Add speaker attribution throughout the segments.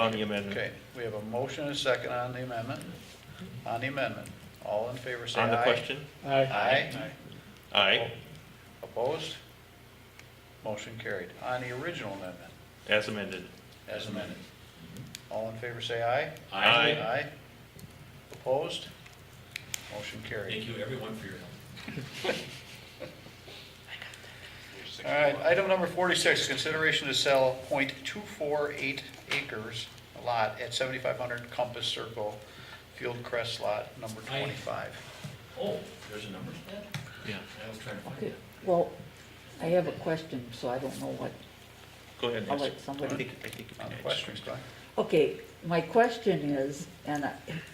Speaker 1: on the amendment.
Speaker 2: Okay, we have a motion and a second on the amendment. On the amendment, all in favor say aye.
Speaker 1: On the question?
Speaker 2: Aye.
Speaker 1: Aye,
Speaker 2: Opposed? Motion carried. On the original amendment,
Speaker 1: as amended.
Speaker 2: as amended, all in favor say aye.
Speaker 1: Aye.
Speaker 2: Aye. Opposed? Motion carried.
Speaker 3: Thank you, everyone, for your help.
Speaker 2: All right, item number forty-six, consideration to sell 0.248 acres lot at seventy-five hundred Compass Circle, Field Crest Lot number
Speaker 3: Aye.
Speaker 2: twenty-five.
Speaker 3: Oh, there's a number for that?
Speaker 1: Yeah.
Speaker 3: I was trying to find
Speaker 4: Okay,
Speaker 3: it.
Speaker 4: well, I have a question, so I don't know what,
Speaker 1: Go ahead,
Speaker 4: I'll
Speaker 1: Russ.
Speaker 4: let
Speaker 1: I
Speaker 4: somebody.
Speaker 1: think, I think. you can
Speaker 2: On the
Speaker 1: add
Speaker 2: questions,
Speaker 1: something.
Speaker 2: Glenn?
Speaker 4: Okay, my question is, and I,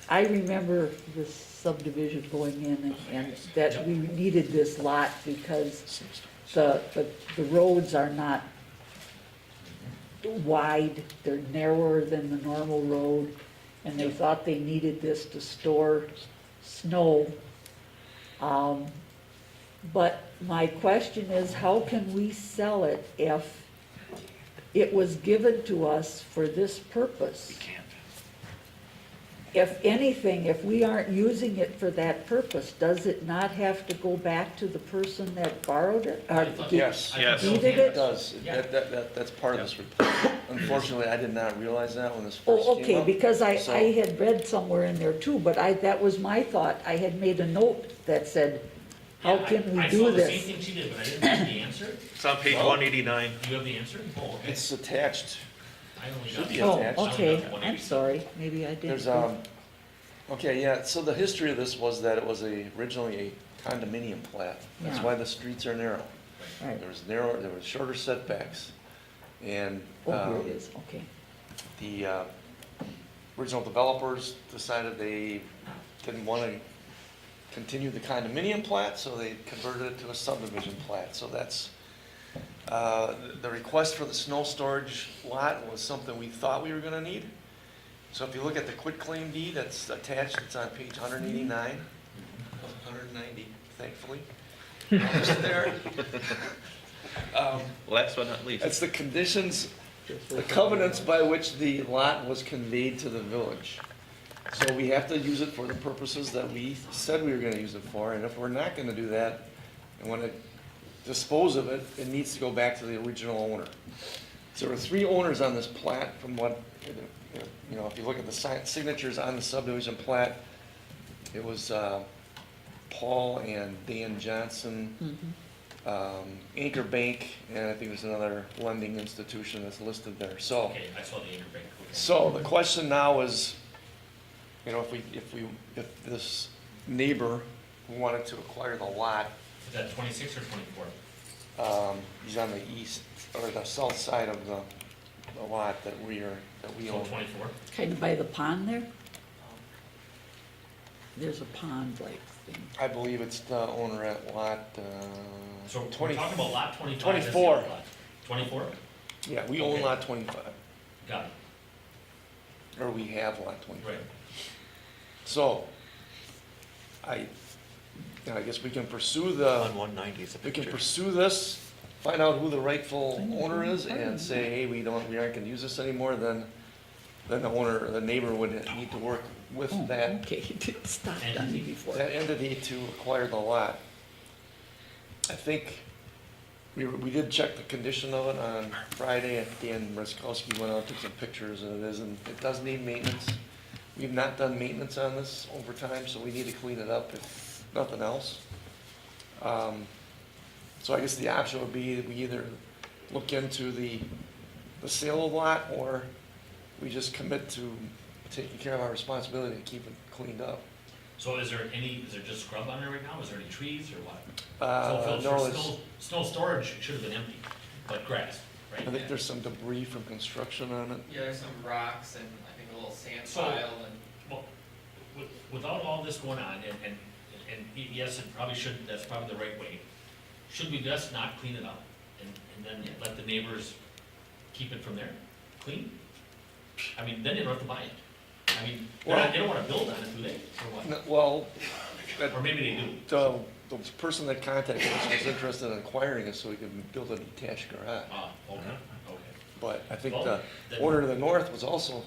Speaker 4: I remember this subdivision going in and, and that we needed this lot because the, the, the roads are not wide, they're narrower than the normal road, and they thought they needed this to store snow. Um, but my question is, how can we sell it if it was given to us for this purpose? We can't. If anything, if we aren't using it for that purpose, does it not have to go back to the person that borrowed it? or
Speaker 3: I thought-
Speaker 4: did-
Speaker 5: Yes.
Speaker 3: I thought
Speaker 1: Yes.
Speaker 3: Bill
Speaker 4: Did
Speaker 3: Gates-
Speaker 4: it?
Speaker 5: It does.
Speaker 3: Yeah.
Speaker 5: That, that, that, that's part of this report. Unfortunately, I did not realize that when this first came
Speaker 4: Oh,
Speaker 5: up.
Speaker 4: okay, because I,
Speaker 5: So-
Speaker 4: I had read somewhere in there too, but I, that was my thought. I had made a note that said, how
Speaker 3: Yeah, I-
Speaker 4: can we
Speaker 3: I saw
Speaker 4: do
Speaker 3: the same
Speaker 4: this?
Speaker 3: thing she did, but I didn't have the answer.
Speaker 1: It's on page one eighty-nine.
Speaker 3: Do you have the answer? Oh, okay.
Speaker 5: It's attached.
Speaker 3: I only
Speaker 5: should
Speaker 3: got.
Speaker 5: be
Speaker 4: Oh,
Speaker 5: attached.
Speaker 4: okay, I'm sorry, maybe I didn't.
Speaker 5: There's, um, okay, yeah, so the history of this was that it was a, originally a condominium plat. That's
Speaker 4: Yeah.
Speaker 5: why the streets are narrow.
Speaker 4: Right.
Speaker 5: There was narrow, there was shorter setbacks. And,
Speaker 3: uh,
Speaker 4: Oh, here
Speaker 5: um,
Speaker 4: it is, okay.
Speaker 5: the uh, original developers decided they didn't want to continue the condominium plat, so they converted it to a subdivision plat. So that's, uh, the request for the snow storage lot was something we thought we were going to need. So if you look at the quitclaim deed that's attached, it's on page 189, 190, thankfully. Almost there. Um,
Speaker 1: Last but not least.
Speaker 5: It's the conditions the covenants by which the lot was conveyed to the village. So we have to use it for the purposes that we said we were gonna use it for, and if we're not gonna do that, and wanna dispose of it, it needs to go back to the original owner. So There were three owners on this plat, from what, you know, if you look at the si- signatures on the subdivision plat, it was, uh, Paul and Dan Johnson,
Speaker 4: Mhm.
Speaker 5: um, Anchor Bank, and I think there's another lending institution that's listed there, so.
Speaker 3: Okay, I saw the anchor bank. Okay.
Speaker 5: So the question now is, you know, if we, if we, if this neighbor who wanted to acquire the lot,
Speaker 3: Is that twenty-six or twenty-four?
Speaker 5: um, he's on the east, or the south side of the, the lot that we are, that we
Speaker 3: So
Speaker 5: own.
Speaker 3: twenty-four?
Speaker 4: Kind of by the pond there? There's a pond-like thing.
Speaker 5: I believe it's the owner at lot,
Speaker 3: So
Speaker 5: uh,
Speaker 3: we're
Speaker 5: twenty.
Speaker 3: talking about lot twenty-five. that's the
Speaker 5: 24.
Speaker 3: other lot. Twenty-four?
Speaker 5: Yeah, we own lot twenty-five,
Speaker 3: Got it,
Speaker 5: or we have lot twenty-five.
Speaker 3: right.
Speaker 5: So, I, you know, I guess we can pursue the,
Speaker 2: uh,
Speaker 1: On one ninety is a
Speaker 5: we can
Speaker 1: picture.
Speaker 5: pursue this, find out who the rightful owner is, and say, hey, we don't, we aren't gonna use this anymore, then, then the owner, the neighbor would need to work with
Speaker 4: Oh,
Speaker 5: that,
Speaker 4: okay, it didn't stop on me before.
Speaker 5: that entity to acquire the lot. I think, we, we did check the condition of it on Friday, and Dan Ruskowski went out, took some pictures, and it is, and it does need maintenance. We've not done maintenance on this over time, so we need to clean it up if nothing else. Um, So I guess the option would be that we either look into the, the sale of lot, or we just commit to taking care of our responsibility to keep it cleaned up.
Speaker 3: So is there any, is there just scrub on there right now? Is there any trees or what?
Speaker 5: Uh,
Speaker 3: So
Speaker 5: no,
Speaker 3: for
Speaker 5: it's-
Speaker 3: snow, snow storage, it should have been empty, but grass, right?
Speaker 5: I think there's some debris from construction on it.
Speaker 6: Yeah, there's some rocks and I think a little sand
Speaker 3: So-
Speaker 6: pile and.
Speaker 3: Well, with- Without all this going on, and, and, and y- yes, it probably should, that's probably the right way, should we just not clean it up? And, and then let the neighbors keep it from there, clean? I mean, then they don't have to buy it. I mean, they're not- they don't wanna build on it, do they, or
Speaker 5: No, Well,
Speaker 3: what? Or maybe they do,
Speaker 5: the, the person that contacted us was interested in acquiring it so he could build a detached garage.
Speaker 3: ah, okay, okay.
Speaker 5: But I think
Speaker 3: Well,
Speaker 5: the
Speaker 3: then-
Speaker 5: order to the north was also